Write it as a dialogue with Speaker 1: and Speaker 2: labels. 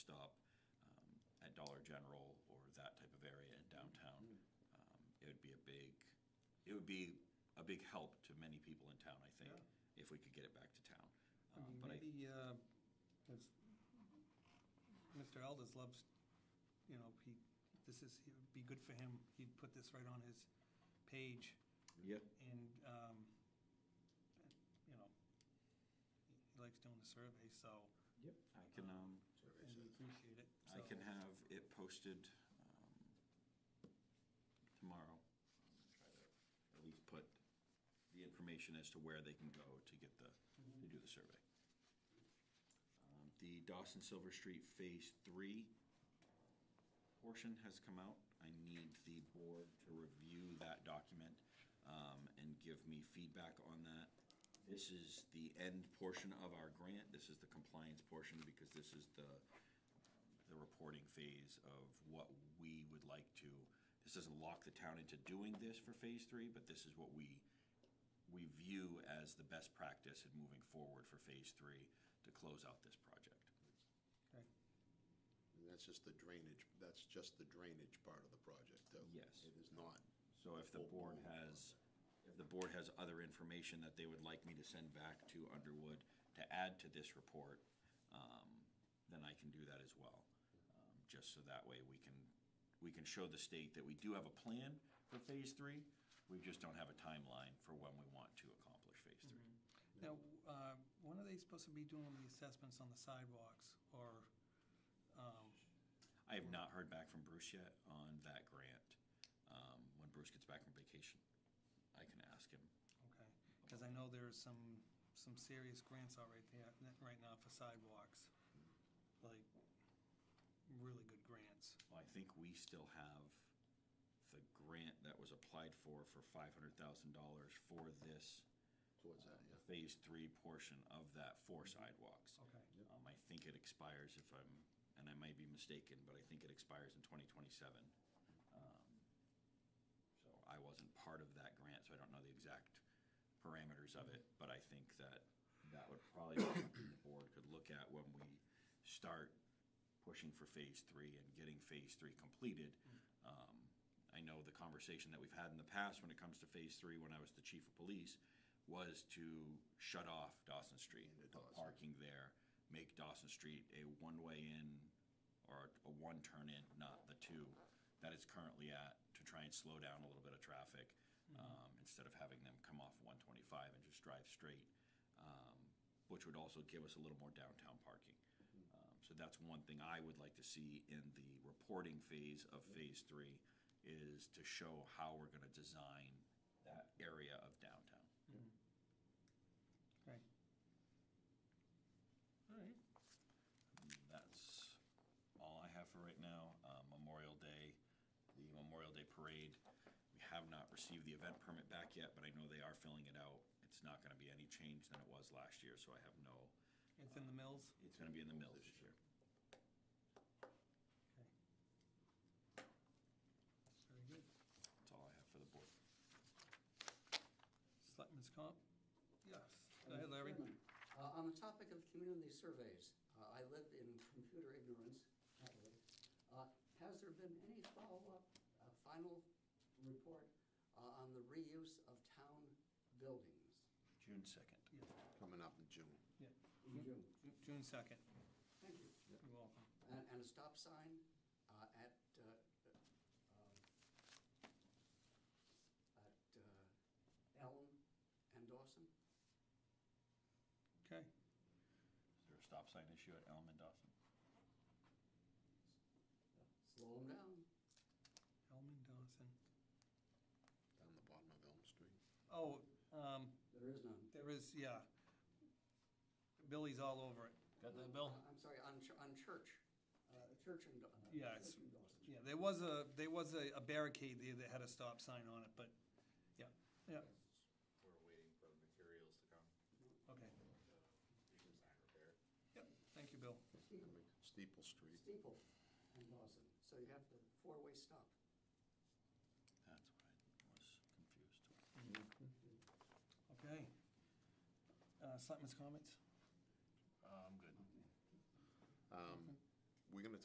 Speaker 1: um, Dollar General or that type of area in downtown. Um, It would be a big, it would be a big help to many people in town, I think,
Speaker 2: Yeah.
Speaker 1: if we could get it back to town.
Speaker 2: I
Speaker 1: Um,
Speaker 2: mean,
Speaker 1: But I,
Speaker 2: maybe, uh, as Mr. Elders loves, you know, he, this is, it would be good for him, he'd put this right on his page,
Speaker 1: yeah,
Speaker 2: and, um, you know, he likes doing the survey, so,
Speaker 1: Yep. I can, um,
Speaker 2: and we appreciate it.
Speaker 1: I can
Speaker 2: so-
Speaker 1: have it posted um, tomorrow. Try to At least put the information as to where they can go to get the, to do the survey. Um, The Dawson Silver Street Phase Three portion has come out. I need the board to review that document um, and give me feedback on that. This is the end portion of our grant. This is the compliance portion because this is the the reporting phase of what we would like to, this doesn't lock the town into doing this for phase three, but this is what we, we view as the best practice in moving forward for phase three to close out this project.
Speaker 2: Okay.
Speaker 3: And that's just the drainage, that's just the drainage part of the project, though.
Speaker 1: Yes.
Speaker 3: It is not.
Speaker 1: So if the board has, if the board has other information that they would like me to send back to Underwood to add to this report, um, then I can do that as well. Um, Just so that way we can, we can show the state that we do have a plan for phase three. We just don't have a timeline for when we want to accomplish phase three.
Speaker 2: Now, uh, when are they supposed to be doing the assessments on the sidewalks, or, um,
Speaker 1: I have not heard back from Bruce yet on that grant. Um, When Bruce gets back from vacation, I can ask him.
Speaker 2: okay, because I know there's some, some serious grants out right there, right now for sidewalks, like, really good grants.
Speaker 1: Well, I think we still have the grant that was applied for, for five hundred thousand dollars for this
Speaker 3: Towards that, yeah. Mm-hmm.
Speaker 1: phase three portion of that for sidewalks.
Speaker 2: Okay.
Speaker 3: Yep.
Speaker 1: Um, I think it expires if I'm, and I might be mistaken, but I think it expires in twenty twenty-seven. Um, So I wasn't part of that grant, so I don't know the exact parameters of it, but I think that that would probably be something the board could look at when we start pushing for phase three and getting phase three completed. Um, I know the conversation that we've had in the past when it comes to phase three, when I was the chief of police, was to shut off Dawson Street,
Speaker 3: Into
Speaker 1: the
Speaker 3: Dawson.
Speaker 1: parking there, make Dawson Street a one-way in or a one-turn in, not the two that it's currently at, to try and slow down a little bit of traffic,
Speaker 2: Uh, Mm-hmm.
Speaker 1: um, instead of having them come off one twenty-five and just drive straight, um, which would also give us a little more downtown parking. Um, So that's one thing I would like to see in the reporting phase of phase three, is to show how we're gonna design that area of downtown.
Speaker 2: Okay. All right.
Speaker 1: That's all I have for right now. Uh, Memorial Day, the Memorial Day Parade, we have not received the event permit back yet, but I know they are filling it out. It's not gonna be any change than it was last year, so I have no,
Speaker 2: It's in the mills?
Speaker 1: it's gonna be in the mills this year.
Speaker 2: Okay. Very good.
Speaker 1: That's all I have for the board.
Speaker 2: Selectmen's comp? Yes. Go ahead, Larry.
Speaker 4: Uh, on the topic of community surveys, uh, I live in computer ignorance, happily. Uh, has there been any follow-up, uh, final report, uh, on the reuse of town buildings?
Speaker 1: June second.
Speaker 2: Yeah,
Speaker 3: Coming up in June.
Speaker 2: yeah.
Speaker 4: In June.
Speaker 2: Ju- June second.
Speaker 4: Thank you.
Speaker 2: You're welcome.
Speaker 4: And, and a stop sign, uh, at, uh, um, at, uh, Elm and Dawson?
Speaker 2: Okay.
Speaker 1: Is there a stop sign issue at Elm and Dawson?
Speaker 4: Slow them down.
Speaker 2: Elman Dawson.
Speaker 3: Down the bottom of Elm Street.
Speaker 2: Oh, um,
Speaker 4: There is none.
Speaker 2: there is, yeah. Billy's all over it. Got that, Bill?
Speaker 4: Uh, I'm sorry, on, Ch- on Church, uh, Church and. Daw-
Speaker 2: Yeah, it's-
Speaker 4: Church and Dawson.
Speaker 2: Yeah, there was a, there was a a barricade there that had a stop sign on it, but, yeah, yeah,
Speaker 5: We're waiting for the materials to come,
Speaker 2: okay.
Speaker 5: the design repair.
Speaker 2: Yep, thank you, Bill.
Speaker 4: Steeple-
Speaker 3: Steeple Street.
Speaker 4: Steeple and Dawson, so you have the four-way stop.
Speaker 1: That's what I was confused.
Speaker 2: Okay. Uh, Selectmen's comments?
Speaker 1: I'm good.
Speaker 3: Um,